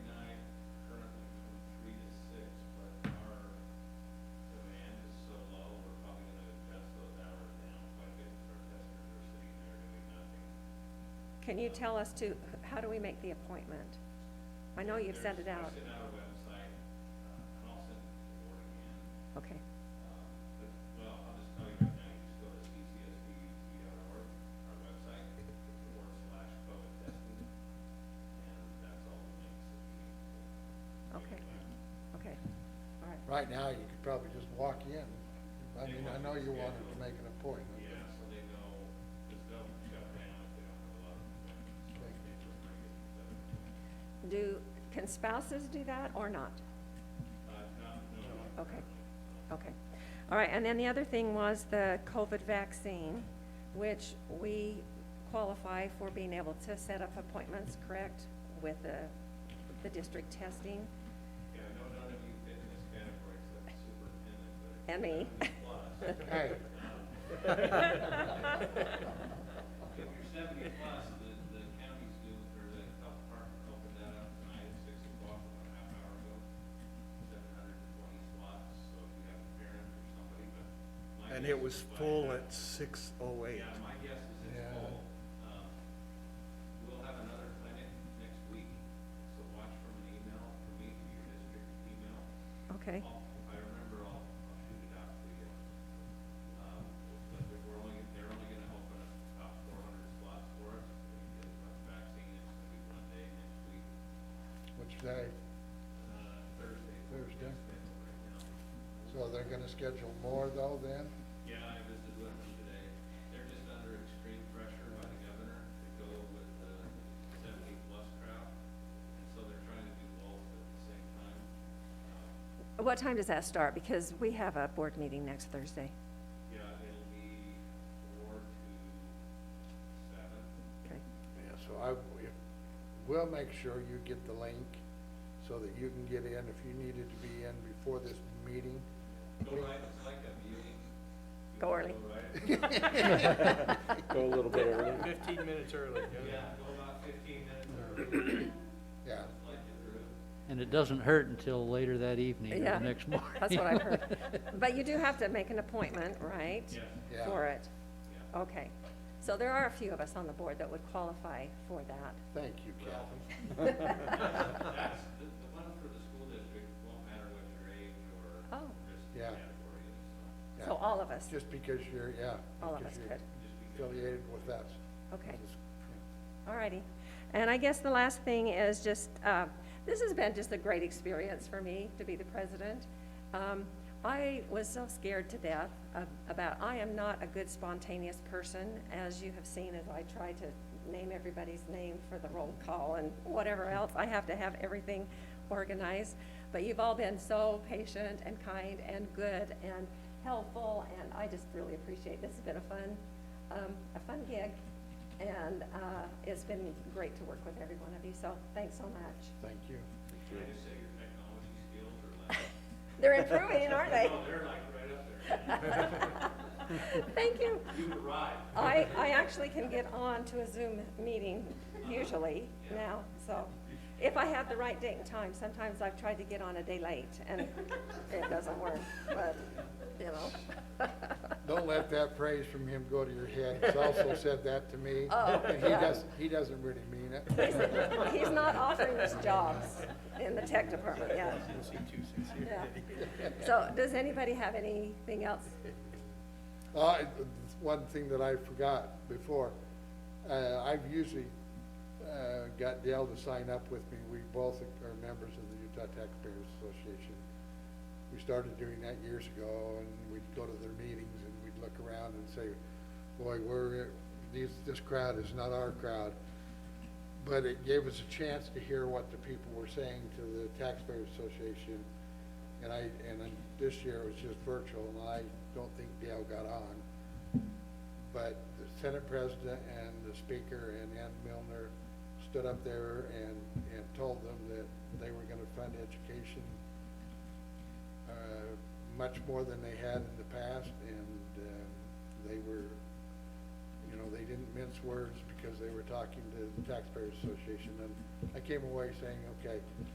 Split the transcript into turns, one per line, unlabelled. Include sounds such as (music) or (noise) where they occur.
Can you tell us to, how do we make the appointment? I know you've sent it out.
It's in our website, uh, and I'll send it to the board again.
Okay,
Um, but, well, I'll just tell you right now, you just go to ccsbut.org, our website, forward slash COVID testing, and that's all the links that you need. to-
Okay. okay, all right.
Right now, you could probably just walk in. I mean, I know you wanted to make an appointment.
Yeah, so they know, because they'll shut down if they don't have a lot of.
but
They just bring it, so,
Do, can spouses do that or not?
Uh, not, no, not
Okay.
currently.
Okay, all right, and then the other thing was the COVID vaccine, which we qualify for being able to set up appointments, correct, with the, the district testing?
Yeah, no, none of you fit in this category except the superintendent, but. if
And me.
you're 70 plus,
(laughs)
(laughs)
Hey.
If you're seventy plus, the, the counties do, or the health department opened that up tonight at six o'clock, about a half hour ago. Seven hundred and twenty slots, so if you have a parent or somebody, but. my
And
guess
it was
is by
full
now-
at six oh eight.
Yeah, my guess is it's
Yeah.
full. Um, We'll have another clinic next week, so watch for an email from me to your district email.
Okay,
I'll- If I remember, I'll, I'll shoot it out to you. Um, But if we're only, they're only gonna open up about four hundred slots for us, we get the vaccine, it's gonna be one day next week,
Which they,
uh, Thursday.
Thursday.
scheduled right now.
so they're gonna schedule more though then?
Yeah, I visited with them today. They're just under extreme pressure by the governor to go with the seventy-plus crowd, and so they're trying to do both at the same time. Um,
what time does that start? Because we have a board meeting next Thursday.
Yeah, it'll be four to seven.
Okay,
Yeah, so I, if- we'll make sure you get the link so that you can get in if you needed to be in before this meeting.
Go right, it's like a viewing. You
Go early.
(laughs) Go right,
Go a little bit early.
Fifteen minutes early,
yeah, go about fifteen minutes early,
Yeah,
like you through.
And it doesn't hurt until later that evening
Yeah,
or the next morning.
(laughs) That's what I've heard.
(laughs)
But you do have to make an appointment, right?
Yeah,
yeah.
For it?
yeah.
Okay. So there are a few of us on the board that would qualify for that.
Thank you, Kathy.
That's, the, the one for the school district won't matter what your age or
Oh.
risk
Yeah.
category is, so
So
Yeah.
all of us,
Just because you're, yeah.
all of
because
us
you're
could.
just because.
Affiliated with us.
Okay.
Just-
All righty. And I guess the last thing is just, uh, this has been just a great experience for me to be the president. Um, I was so scared to death of- about, I am not a good spontaneous person, as you have seen as I try to name everybody's name for the roll call and whatever else. I have to have everything organized. But you've all been so patient and kind and good and helpful, and I just really appreciate, this has been a fun, um, a fun gig. And uh, it's been great to work with every one of you, so thanks so much.
Thank you.
Can I just say your technology skills are like,
They're improving,
(laughs)
aren't they?
no, they're like right up there.
Thank you.
You arrived.
I, I actually can get on to a Zoom meeting usually now, so if I have the right date and time, sometimes I've tried to get on a day late and it doesn't work, but, you know.
Don't let that praise from him go to your head.
(laughs)
He's also said that to me.
Oh,
And he
yeah.
doesn't, he doesn't really mean it.
He's- He's not offering us jobs in the tech department yet. Yeah. So does anybody have anything else?
Uh, it- it's one thing that I forgot before, uh, I've usually, uh, got Dale to sign up with me. We both are members of the Utah Taxpayers Association. We started doing that years ago and we'd go to their meetings and we'd look around and say, boy, we're, these, this crowd is not our crowd. But it gave us a chance to hear what the people were saying to the Taxpayers Association. And I, and then this year it was just virtual, and I don't think Dale got on. But the Senate President and the Speaker and Ann Milner stood up there and, and told them that they were gonna fund education uh, much more than they had in the past, and um, they were, you know, they didn't mince words because they were talking to the Taxpayers Association. And I came away saying, okay,